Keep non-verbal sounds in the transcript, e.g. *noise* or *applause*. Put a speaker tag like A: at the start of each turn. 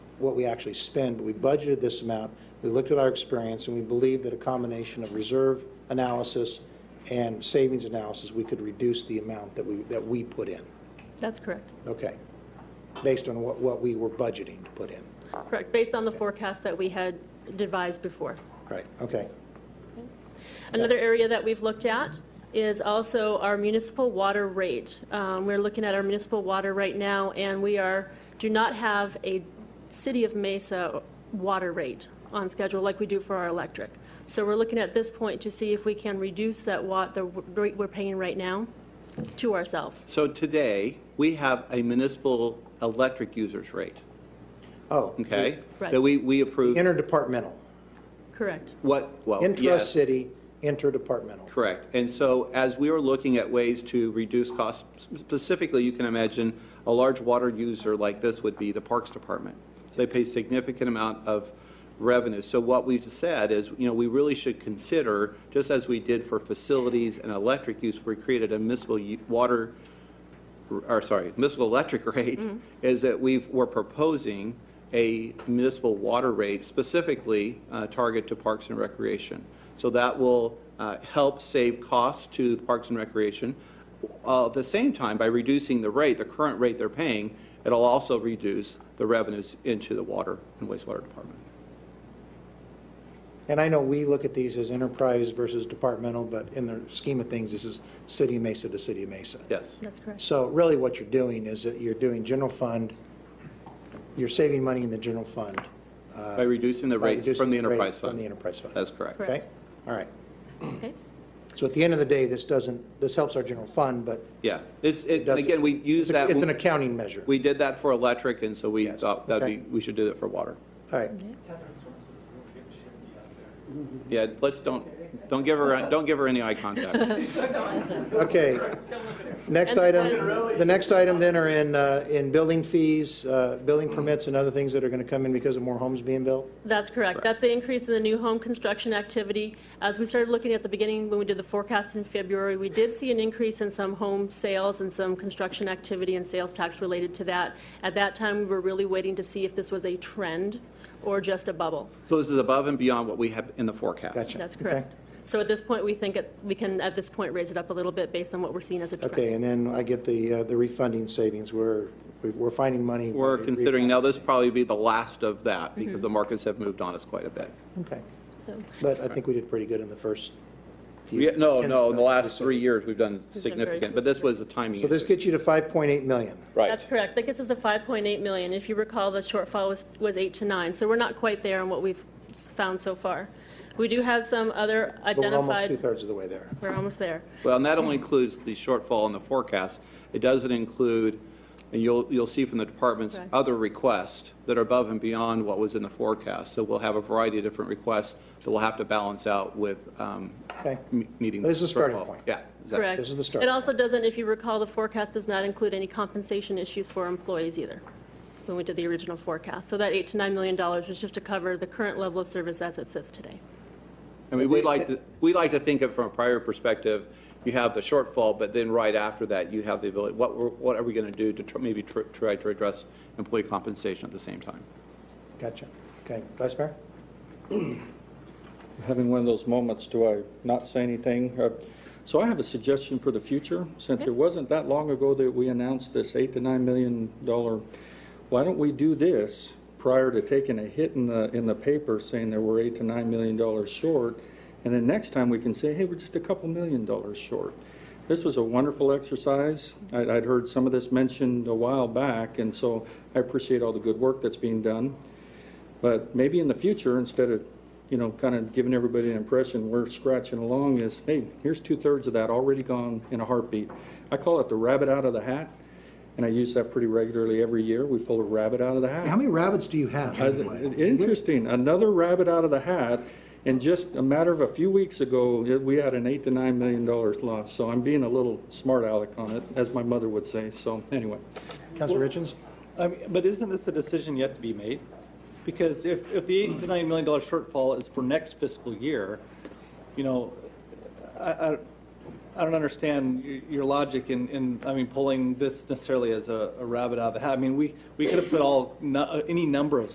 A: what we actually spend, but we budgeted this amount. We looked at our experience, and we believe that a combination of reserve analysis and savings analysis, we could reduce the amount that we, that we put in.
B: That's correct.
A: Okay. Based on what, what we were budgeting to put in.
B: Correct, based on the forecast that we had devised before.
A: Right, okay.
B: Another area that we've looked at is also our municipal water rate. Um, We're looking at our municipal water right now, and we are, do not have a City of Mesa water rate on schedule like we do for our electric. So we're looking at this point to see if we can reduce that wat, the w- rate we're paying right now to ourselves.
C: So today, we have a municipal electric users rate,
A: Oh.
C: okay?
B: Right.
C: That we, we approve,
A: Interdepartmental.
B: Correct.
C: what, well, Oh, yes,
A: Intra-city, interdepartmental.
C: correct. And so as we are looking at ways to reduce costs, specifically, you can imagine a large water user like this would be the Parks Department. So They pay significant amount of revenue. So what we've said is, you know, we really should consider, just as we did for facilities and electric use, we created a municipal u- water or sorry, municipal electric *laughs* rate, is that we've, we're proposing a municipal water rate specifically uh, target to Parks and Recreation. So that will uh, help save costs to Parks and Recreation. Uh, At the same time, by reducing the rate, the current rate they're paying, it'll also reduce the revenues into the water and wastewater department.
A: And I know we look at these as enterprise versus departmental, but in the scheme of things, this is city of Mesa to city of Mesa.
C: Yes.
B: That's correct.
A: So really what you're doing is that you're doing general fund, you're saving money in the general fund. uh,
C: By reducing the
A: by
C: rates
A: reducing
C: from the
A: rate
C: enterprise
A: From the
C: fund.
A: enterprise fund.
C: That's correct.
B: Correct.
A: Okay, all right.
B: Okay?
A: So at the end of the day, this doesn't, this helps our general fund, but
C: Yeah. It's,
A: it
C: it- and
A: doesn't.
C: again, we use
A: it's a-
C: that,
A: It's an accounting measure.
C: we did that for electric, and so we
A: Yes.
C: thought that'd
A: Okay.
C: be, we should do that for water.
A: All right,
C: Yeah, let's don't, don't give her, don't give her any eye
A: *laughs*
C: contact.
A: okay. Next
B: And the
A: item, the next item then are in, uh, in building fees, uh, building permits and other things that are going to come in because of more homes being built?
B: That's correct.
C: Correct.
B: That's the increase in the new home construction activity. As we started looking at the beginning, when we did the forecast in February, we did see an increase in some home sales and some construction activity and sales tax related to that. At that time, we were really waiting to see if this was a trend or just a bubble.
C: So this is above and beyond what we have in the forecast.
A: Gotcha.
B: That's
A: Okay.
B: correct. So at this point, we think it- we can, at this point, raise it up a little bit based on what we're seeing as a trend.
A: Okay, and then I get the, uh, the refunding savings, we're, we're finding money.
C: We're considering, now this probably be the last of that, because the markets have moved on us quite a bit.
A: Okay,
B: So-
A: but I think we did pretty good in the first few.
C: Yeah, No,
A: ten-
C: no, in the last
A: so-
C: three years, we've done
B: very
C: significant, but this was a timing
A: So this
C: issue.
A: gets you to 5.8 million.
B: That's correct. That gets us to 5.8 million. If you recall, the shortfall was, was 8 to 9, so we're not quite there on what we've s- found so far. We do have some other
A: But we're almost
B: identified,
A: two-thirds of the way there.
B: we're almost there.
C: Well, and that only includes the shortfall in the forecast. It doesn't include, and you'll, you'll see from the department's
B: Correct.
C: other requests that are above and beyond what was in the forecast. So we'll have a variety of different requests that we'll have to balance out with um,
A: Okay.
C: m- meeting.
A: This is the starting
C: shortfall.
A: point.
C: Yeah. exactly.
B: Correct.
A: This is the start.
B: It also doesn't, if you recall, the forecast does not include any compensation issues for employees either, when we did the original forecast. So that 8 to 9 million dollars is just to cover the current level of service as it sits today.
C: I mean, we like to, we like to think of from a prior perspective, you have the shortfall, but then right after that, you have the ability, what, we're- what are we going to do to tr- maybe tr- try to address employee compensation at the same time?
A: Gotcha. Okay, Vice Mayor?
D: having one of those moments, do I not say anything? Uh, So I have a suggestion for the future, since it wasn't that long ago that we announced this eight to nine million dollar, why don't we do this prior to taking a hit in the, in the paper saying that we're eight to nine million dollars short? And then next time we can say, hey, we're just a couple million dollars short. This was a wonderful exercise. I'd, I'd heard some of this mentioned a while back, and so I appreciate all the good work that's being done. But maybe in the future, instead of, you know, kind of giving everybody an impression we're scratching along is, hey, here's two-thirds of that already gone in a heartbeat. I call it the rabbit out of the hat, and I use that pretty regularly every year. We pull a rabbit out of the hat.
A: How many rabbits do you have?
D: Uh, Interesting, another rabbit out of the hat, and just a matter of a few weeks ago, it- we had an eight to nine million dollars loss, so I'm being a little smart aleck on it, as my mother would say, so anyway.
A: Councilor Richens?
E: I mean, but isn't this a decision yet to be made? Because if, if the eight to nine million dollar shortfall is for next fiscal year, you know, I, I, I don't understand y- your logic in, in, I mean, pulling this necessarily as a, a rabbit out of the hat. I mean, we, we could have put all, nu- any number of